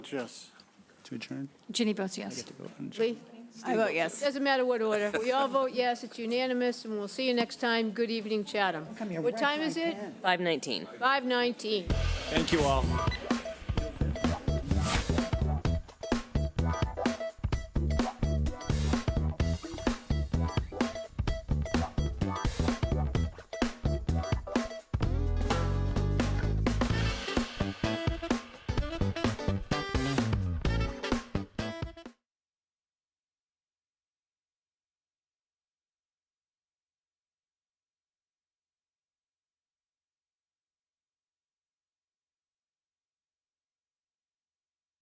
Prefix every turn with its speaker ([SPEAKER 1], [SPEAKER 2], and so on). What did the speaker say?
[SPEAKER 1] Yes.
[SPEAKER 2] To adjourn?
[SPEAKER 3] Ginny votes yes.
[SPEAKER 4] Lee?
[SPEAKER 5] I vote yes.
[SPEAKER 4] Doesn't matter what order. We all vote yes, it's unanimous, and we'll see you next time. Good evening, Chatham. What time is it?
[SPEAKER 6] 519.
[SPEAKER 4] 5:19.
[SPEAKER 1] Thank you all.